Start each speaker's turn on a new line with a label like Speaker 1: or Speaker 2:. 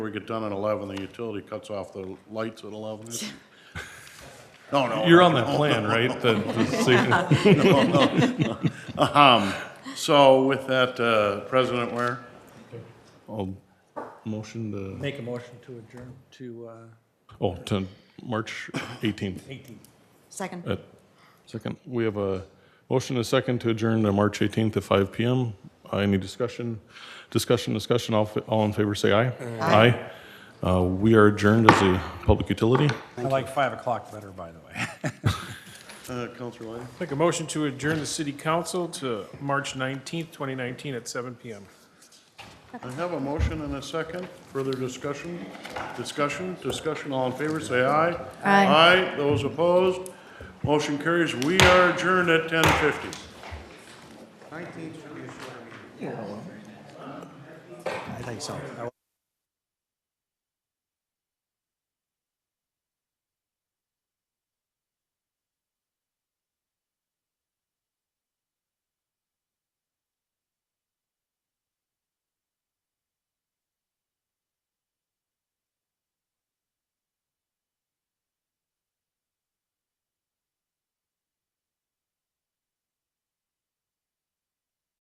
Speaker 1: We get done at 11, the utility cuts off the lights at 11. No, no.
Speaker 2: You're on that plan, right? The- the-
Speaker 1: Um, So with that, uh, President Ware,
Speaker 2: I'll Motion to,
Speaker 3: Make a motion to adjourn to uh,
Speaker 2: oh, to March 18th
Speaker 3: 18.
Speaker 4: Second.
Speaker 2: at second. We have a motion and a second to adjourn to March 18th at 5 PM. Uh, Any discussion? Discussion, discussion, all, fa- all in favor, say aye. Aye. Uh, We are adjourned as a public utility.
Speaker 3: I like 5 o'clock better, by the way.
Speaker 1: uh, Counselor Lane.
Speaker 5: Make a motion to adjourn the city council to March 19th, 2019 at 7 PM.
Speaker 1: I have a motion and a second. Further discussion? Discussion, discussion, all in favor, say aye.
Speaker 4: Aye.
Speaker 1: Aye, those opposed, motion carries. We are adjourned at 10:50.
Speaker 3: I think so. I